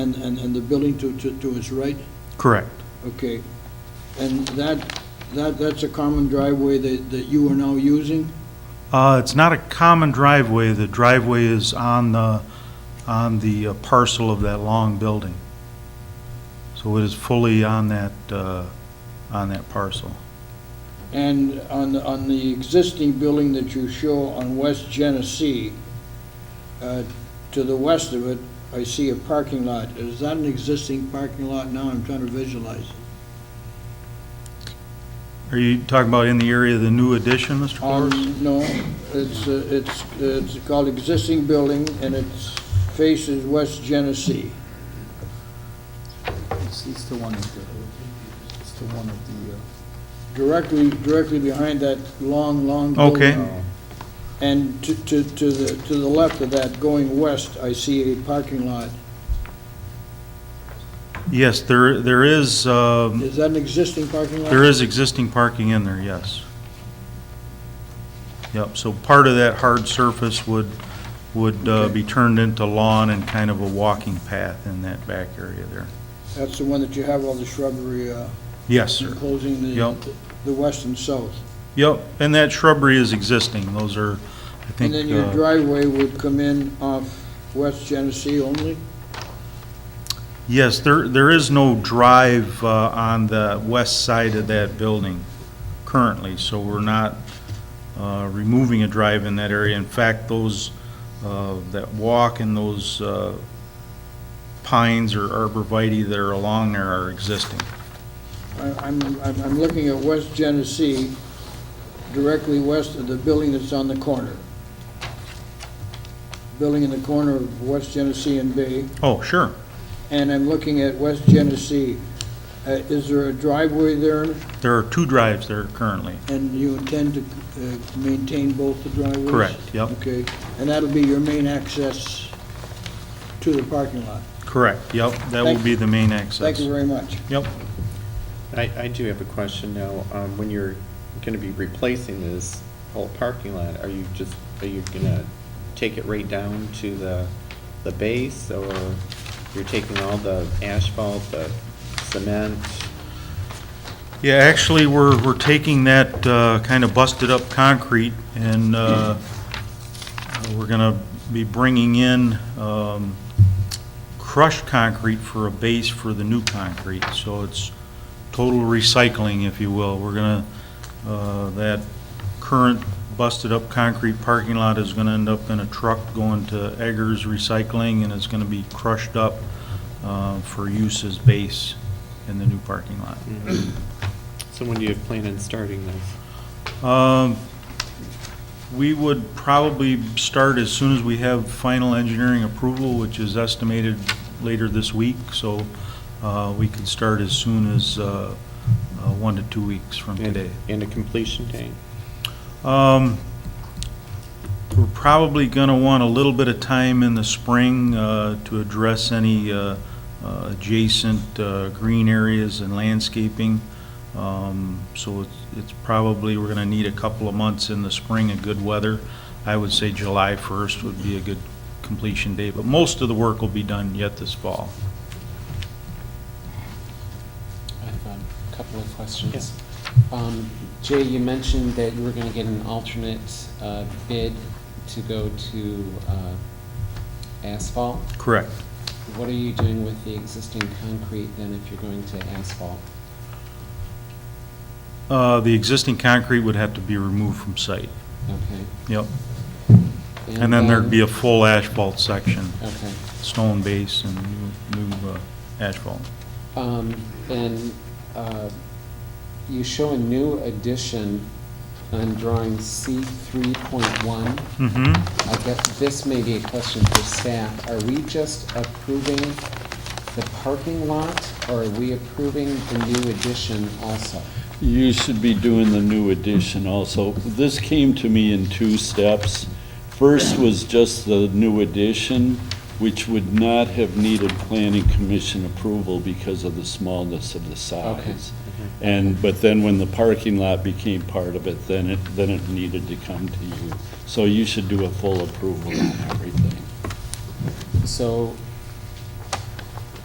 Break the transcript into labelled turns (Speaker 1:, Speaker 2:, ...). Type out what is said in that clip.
Speaker 1: and, and, and the building to, to, to its right?
Speaker 2: Correct.
Speaker 1: Okay. And that, that, that's a common driveway that, that you are now using?
Speaker 2: Uh, It's not a common driveway. The driveway is on the, on the uh, parcel of that long building. So it is fully on that, uh, on that parcel.
Speaker 1: And on, the- on the existing building that you show on West Genesee, uh, to the west of it, I see a parking lot. Is that an existing parking lot now? I'm trying to visualize.
Speaker 2: Are you talking about in the area of the new addition, Mr. Flores?
Speaker 1: Um, No, it's, uh, it's, it's called existing building, and it faces West Genesee.
Speaker 3: It's, it's the one of the, it's the one of the, uh,
Speaker 1: directly, directly behind that long, long building.
Speaker 2: Okay.
Speaker 1: And to, to, to the, to the left of that, going west, I see a parking lot.
Speaker 2: Yes, there, there is, um,
Speaker 1: Is that an existing parking lot?
Speaker 2: there is existing parking in there, yes. Yep, so part of that hard surface would, would uh,
Speaker 1: Okay.
Speaker 2: be turned into lawn and kind of a walking path in that back area there.
Speaker 1: That's the one that you have all the shrubbery, uh,
Speaker 2: Yes, sir.
Speaker 1: enclosing the,
Speaker 2: Yep.
Speaker 1: the west and south.
Speaker 2: Yep, and that shrubbery is existing, those are, I
Speaker 1: And
Speaker 2: think,
Speaker 1: then your
Speaker 2: uh,
Speaker 1: driveway would come in off West Genesee only?
Speaker 2: yes, there, there is no drive uh, on the west side of that building currently, so we're not uh, removing a drive in that area. In fact, those, uh, that walk and those uh, pines or arborvitae that are along there are existing.
Speaker 1: I- I'm, I'm, I'm looking at West Genesee, directly west of the building that's on the corner. Building in the corner of West Genesee and Bay,
Speaker 2: Oh, sure,
Speaker 1: and I'm looking at West Genesee. Uh, Is there a driveway there,
Speaker 2: there are two drives there currently.
Speaker 1: and you intend to uh, maintain both the driveways?
Speaker 2: Correct, yep.
Speaker 1: Okay, and that'll be your main access to the parking lot?
Speaker 2: Correct, yep, that will
Speaker 1: Thank-
Speaker 2: be the main access.
Speaker 1: Thank you very much.
Speaker 2: Yep.
Speaker 4: I, I do have a question now. Um, when you're gonna be replacing this whole parking lot, are you just, are you gonna take it right down to the, the base? Or you're taking all the asphalt, the cement?
Speaker 2: Yeah, actually, we're, we're taking that uh, kind of busted-up concrete, and uh, we're going to be bringing in um, crushed concrete for a base for the new concrete, so it's total recycling, if you will. We're going to, that current busted-up concrete parking lot is going to end up in a truck going to Eggers Recycling, and it's going to be crushed up uh, for use as base in the new parking lot.
Speaker 4: So when do you plan on starting this?
Speaker 2: Um, We would probably start as soon as we have final engineering approval, which is estimated later this week, so uh, we could start as soon as uh, uh, one to two weeks from
Speaker 4: And-
Speaker 2: today.
Speaker 4: And a completion date?
Speaker 2: Um, We're probably going to want a little bit of time in the spring uh, to address any uh, uh, adjacent uh, green areas and landscaping. Um, So it's- it's probably, we're going to need a couple of months in the spring of good weather. I would say July 1st would be a good completion date, but most of the work will be done yet this fall.
Speaker 5: I have a couple of questions. Um, Jay, you mentioned that you were going to get an alternate uh, bid to go to uh, asphalt.
Speaker 2: Correct.
Speaker 5: What are you doing with the existing concrete then if you're going to asphalt?
Speaker 2: Uh, The existing concrete would have to be removed from site.
Speaker 5: Okay.
Speaker 2: Yep. Mm-hmm. And then there'd be a full asphalt section.
Speaker 5: Okay.
Speaker 2: stone base and new- new uh, asphalt.
Speaker 5: Um, And uh, you show a new addition on drawing C 3.1.
Speaker 2: Mm-hmm.
Speaker 5: I guess this may be a question for staff. Are we just approving the parking lot, or are we approving the new addition also?
Speaker 6: You should be doing the new addition also. This came to me in two steps. First was just the new addition, which would not have needed planning commission approval because of the smallness of the size. And, but then when the parking lot became part of it, then it, then it needed to come to you. So you should do a full approval on everything.
Speaker 5: So